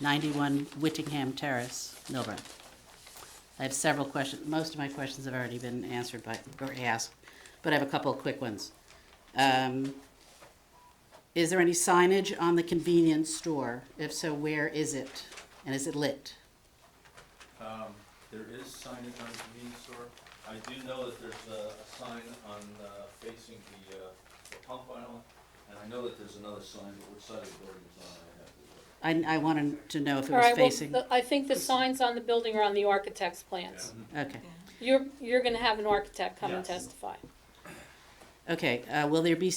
91 Whittingham Terrace, Milburn. I have several questions, most of my questions have already been answered by, or asked, but I have a couple of quick ones. Um, Is there any signage on the convenience store? If so, where is it? And is it lit? There is signage on the convenience store. I do know that there's a a sign on, uh, facing the uh, the pump aisle, and I know that there's another sign, but which side of the building it's on, I have to look. I, I wanted to know if it All was right, well, facing, the- I think the signs on the building are on the architect's plans. okay. You're, you're gonna have an architect come and Yes. testify. Okay, uh, will there be,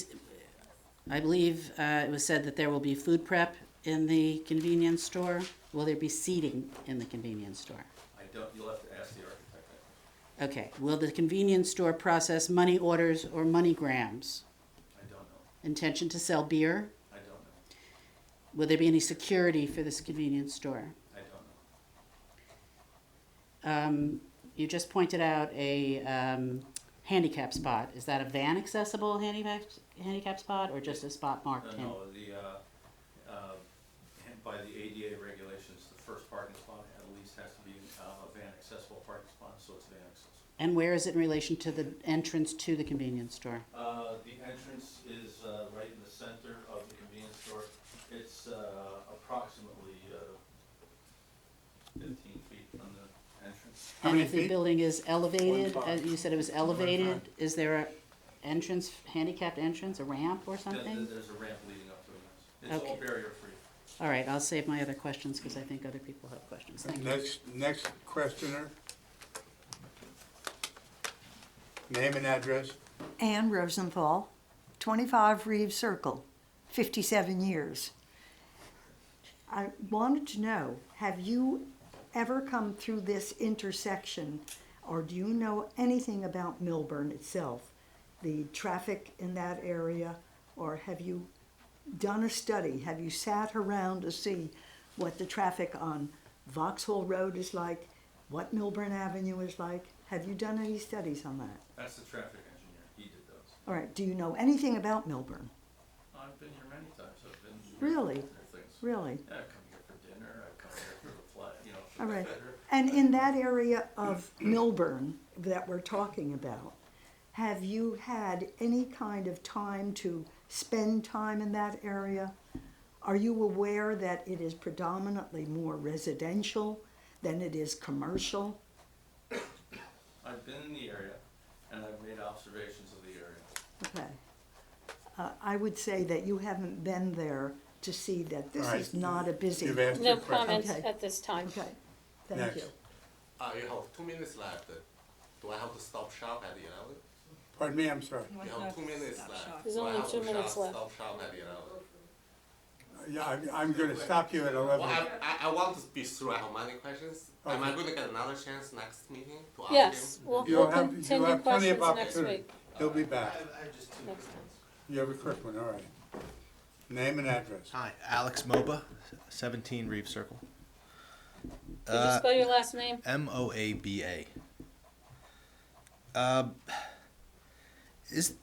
I believe uh, it was said that there will be food prep in the convenience store? Will there be seating in the convenience store? I don't, you'll have to ask the architect. Okay, will the convenience store process money orders or money grams? I I don't know. Intention to sell beer? I don't know. Will there be any security for this convenience store? I don't know. Um, You just pointed out a um, handicap spot. Is that a van accessible handicap, handicap spot or just a spot marked? No, hand- no, the, uh, uh, and by the ADA regulations, the first parking spot at least has to be uh, a van accessible parking spot, so it's van accessible. And where is it in relation to the entrance to the convenience store? Uh, the entrance is, uh, right in the center of the convenience store. It's, uh, approximately, uh, fifteen feet from the entrance. How And many if the feet? building is elevated, Twenty-five. uh, you said it was elevated, is there a entrance, handicapped entrance, a ramp or Th- th- something? There's a ramp leading up to it. It's all Okay. barrier-free. All right, I'll save my other questions because I think other people have questions. Thank you. Next, next questioner. Name and address. Ann Rosenthal, 25 Reeves Circle, 57 years. I wanted to know have you ever come through this intersection or do you know anything about Milburn itself, the traffic in that area, or have you done a study? Have you sat around to see what the traffic on Vauxhall Road is like, what Milburn Avenue is like? Have you done any studies on that? That's the traffic engineer. He did those. All right, do you know anything about Milburn? I've been here many times. I've been. Really? There are things. Really? Yeah, I come here for dinner. I come here for the flight, you know, for All the right. dinner. And in that area of Milburn that we're talking about, have you had any kind of time to spend time in that area? Are you aware that it is predominantly more residential than it is commercial? I've been in the area and I've made observations of the area. Okay. Uh, I would say that you haven't been there to see that this All right. is not a busy. You've asked No your question. comments Okay. at this time. Okay, thank Next. you. Uh, you have two minutes left. Do I have to stop shop at the end? Pardon me, I'm sorry. You have two minutes left. There's Do I only have two to minutes shop- left. Stop shop at the end. Yeah, I'm, I'm gonna stop you at Well, eleven. I, I, I want to be through. I have many questions. Am I going to get another chance next meeting to ask Yes, him? we'll You'll we'll have- you'll continue have plenty questions of next opportunity. week, He'll be back. next time. You have a quick one, all right. Name and address. Hi, Alex Moba, 17 Reeve Circle. Could you spell your last name? M O A B A. Um, Is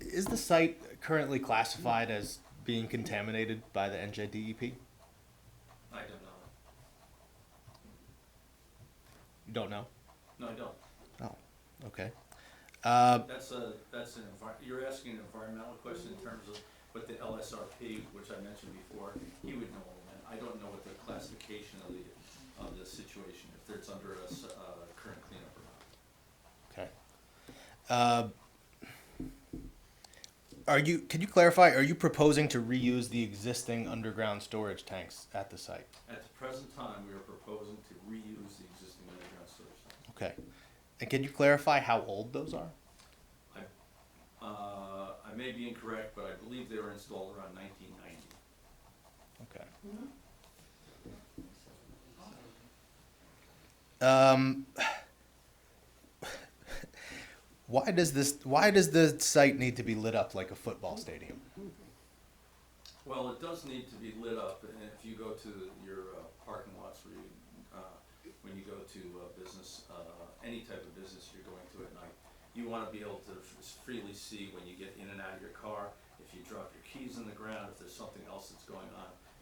is the site currently classified as being contaminated by the NJDEP? You I don't know. don't know. No, I don't. Oh, okay. Uh, That's a, that's an envi- you're asking an environmental question in terms of what the LSRP, which I mentioned before, he would know all that. I don't know what the classification of the, of the situation, if it's under a, s- uh, current cleanup or not. okay. Uh, are you? Can you clarify? Are you proposing to reuse the existing underground storage tanks at the site? At the present time, we are proposing to reuse the existing underground storage tank. Okay. And can you clarify how old those are? I, uh, I may be incorrect, but I believe they were installed around nineteen ninety. Okay. Um, why does this? Why does the site need to be lit up like a football stadium? Well, it does need to be lit up, and if you go to your uh, parking lots where you, uh, when you go to uh, business, uh, any type of business you're going to at night, you want to be able to f- freely see when you get in and out of your car, if you drop your keys in the ground, if there's something else that's going on.